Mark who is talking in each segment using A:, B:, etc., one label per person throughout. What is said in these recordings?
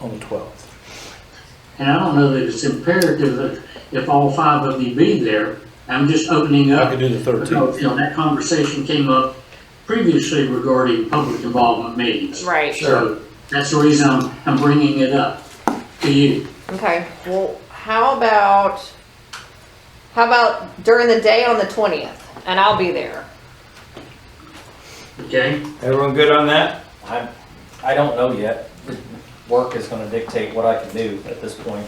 A: on the twelfth.
B: And I don't know that it's imperative that if all five of you be there. I'm just opening
A: I
B: up.
A: could do the
B: Because,
A: thirteenth.
B: you know, that conversation came up previously regarding public involvement meetings.
C: Right.
B: So that's the reason I'm, I'm bringing it up to you.
C: Okay, well, how about, how about during the day on the twentieth, and I'll be there.
B: Okay,
D: Everyone good on that?
E: I, I don't know yet. Work is gonna dictate what I can do at this point.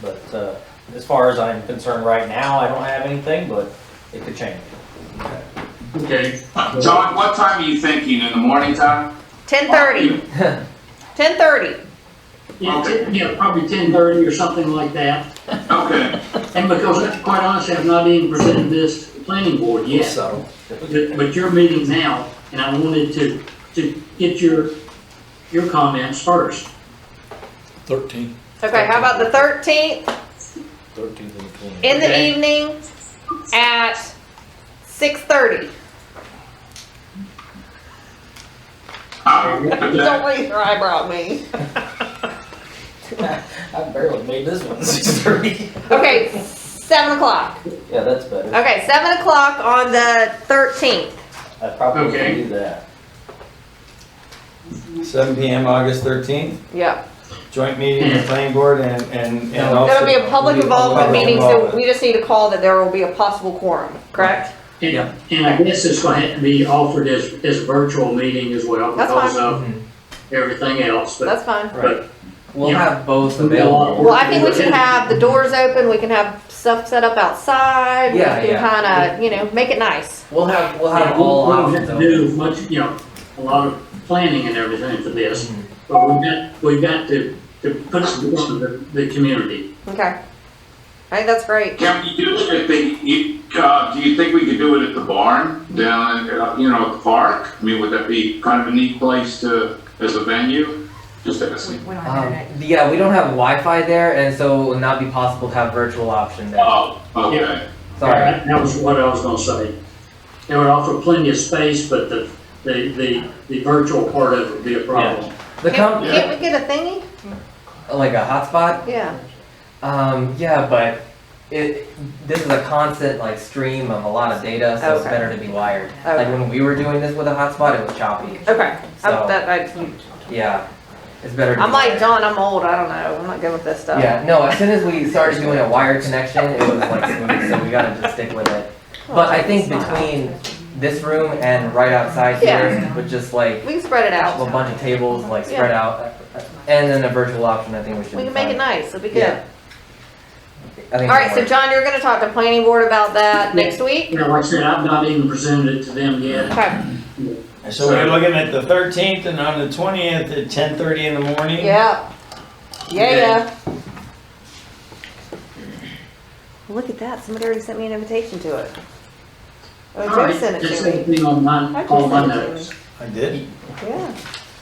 E: But, uh, as far as I'm concerned right now, I don't have anything, but it could change.
B: okay.
F: John, what time are you thinking? In the morning time?
C: Ten thirty. Ten thirty.
B: Yeah, ten- yeah, probably ten thirty or something like that.
F: Okay,
B: And because, quite honestly, I've not even presented this to the planning board yet.
E: So,
B: But but you're meeting now, and I wanted to, to get your, your comments first.
A: Thirteenth,
C: Okay, how about the thirteenth
A: thirteenth and the twentieth.
C: in the
B: Okay.
C: evening at six thirty?
F: I'm good with that.
C: Don't raise your eyebrow at me.
E: I barely made this one six thirty.
C: Okay, seven o'clock.
E: Yeah, that's better.
C: Okay, seven o'clock on the thirteenth.
E: I probably
B: Okay.
E: can do that.
D: Seven PM, August thirteenth,
C: Yep.
D: joint meeting of the planning board and, and, and
E: No,
D: also.
C: There'll be a public involvement
D: Public
C: meeting, so
D: involvement.
C: we just need to call that there will be a possible quorum, correct?
B: And, and I guess it's gonna have to be offered as, as a virtual meeting as well
C: That's
B: because
C: fine.
B: of everything else, but.
C: That's fine.
G: We'll
B: Yeah.
G: have both
B: We'll do a lot of
G: available.
B: work.
C: Well, I think we should have the doors open, we can have stuff set up outside, we
G: Yeah,
C: can
G: yeah.
C: kinda, you know, make it nice.
G: We'll have, we'll
B: Yeah,
G: have
B: we
G: all um,
B: don't
G: options
B: have to
G: open.
B: do much, you know, a lot of planning and everything for this,
G: Mm-hmm.
B: but we've got, we've got to, to put some work to the, the community.
C: Okay. I think that's great.
F: Can we do it at the, you, uh, do you think we could do it at the barn down, at, uh, you know, at the park? I mean, would that be kind of a neat place to, as a venue? Just asking.
H: We don't have
G: Um,
H: internet.
G: yeah, we don't have Wi-Fi there, and so it will not be possible to have virtual option there.
F: Oh, okay.
G: Sorry.
B: That- That was what I was gonna say. It would offer plenty of space, but the, the, the, the virtual part of it would be a problem.
G: The
C: Can't,
G: com-
F: Yeah.
C: can't we get a thingy?
G: like a hotspot.
C: Yeah.
G: Um, yeah, but it this is a constant like stream of a lot of data, so it's
C: Okay.
G: better to be wired. Like
C: Okay.
G: when we were doing this with a hotspot, it was choppy.
C: Okay.
G: So-
C: I'm, that, I,
G: Yeah, it's better. To
C: I'm
G: be
C: like
G: wired.
C: John, I'm old, I don't know, I'm not good with this stuff.
G: Yeah, no. As soon as we started doing a wired connection, it was like smooth, so we gotta just stick with it.
C: Oh,
G: But I think between this room and right outside here,
C: Yeah.
G: with just like
C: We can spread it
G: a
C: out,
G: bunch of tables like spread out, and then a virtual option, I think we should.
C: we
G: be
C: can make
G: fine.
C: it nice, it'll be good.
G: Yeah. I think.
C: Alright, so
G: it'll work.
C: John, you're gonna talk to planning board about that next week?
B: You know, like I said, I've not even presented it to them yet.
C: Okay,
D: So we're looking at the thirteenth and on the twentieth at ten thirty in the morning?
C: yeah. Yeah, yeah. Look at that, somebody already sent me an invitation to it.
B: All
C: Oh,
B: right,
C: Jim sent it
B: That's
C: to me.
B: everything on my,
C: I just
B: on my
C: sent it to me.
B: notes.
D: I did.
C: Yeah.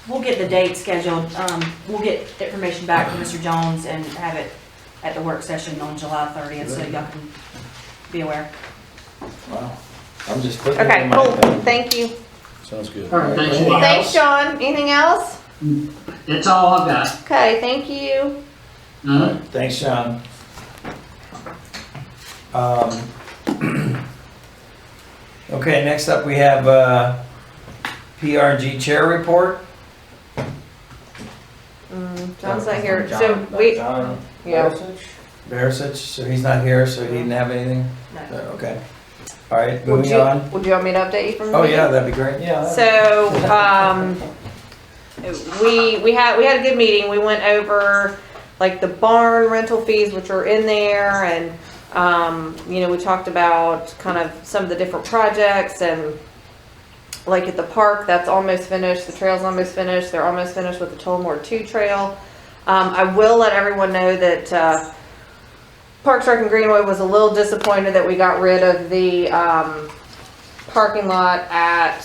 H: We'll get the date scheduled, um, we'll get the information back from Mr. Jones and have it at the work session on July thirtieth, so y'all can be aware.
D: Wow. I'm just putting it
C: Okay,
D: in my
C: cool.
D: thing.
C: Thank you.
A: Sounds good.
B: All right, thanks. anything
C: Thanks,
B: else?
C: Sean. Anything else?
B: That's all I've got.
C: Okay, thank you.
B: Mhm.
D: Thanks, Sean. Um, Okay, next up, we have uh, PRG Chair Report.
C: Mm, John's not here. So we,
E: John
C: yeah.
E: Gorsuch?
D: Barisic, so he's not here, so he didn't have anything? No,
H: No.
D: Okay. All right,
C: Would
D: moving
C: you,
D: on.
C: would you want me to update you from?
D: Oh,
C: the
D: yeah, that'd be great.
E: Yeah. that-
C: So, um, we, we had, we had a good meeting, we went over, like, the barn rental fees, which are in there, and, um, you know, we talked about kind of some of the different projects, and, like, at the park, that's almost finished, the trail's almost finished, they're almost finished with the Tullamore Two Trail. Um, I will let everyone know that, uh, Parks Rec and Greenway was a little disappointed that we got rid of the, um, parking lot at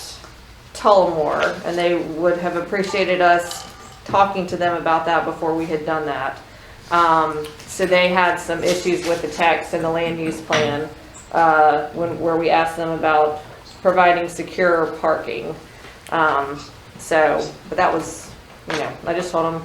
C: Tullamore, and they would have appreciated us talking to them about that before we had done that. Um, so they had some issues with the text and the land use plan, uh, when, where we asked them about providing secure parking. Um, so, but that was, you know, I just told them,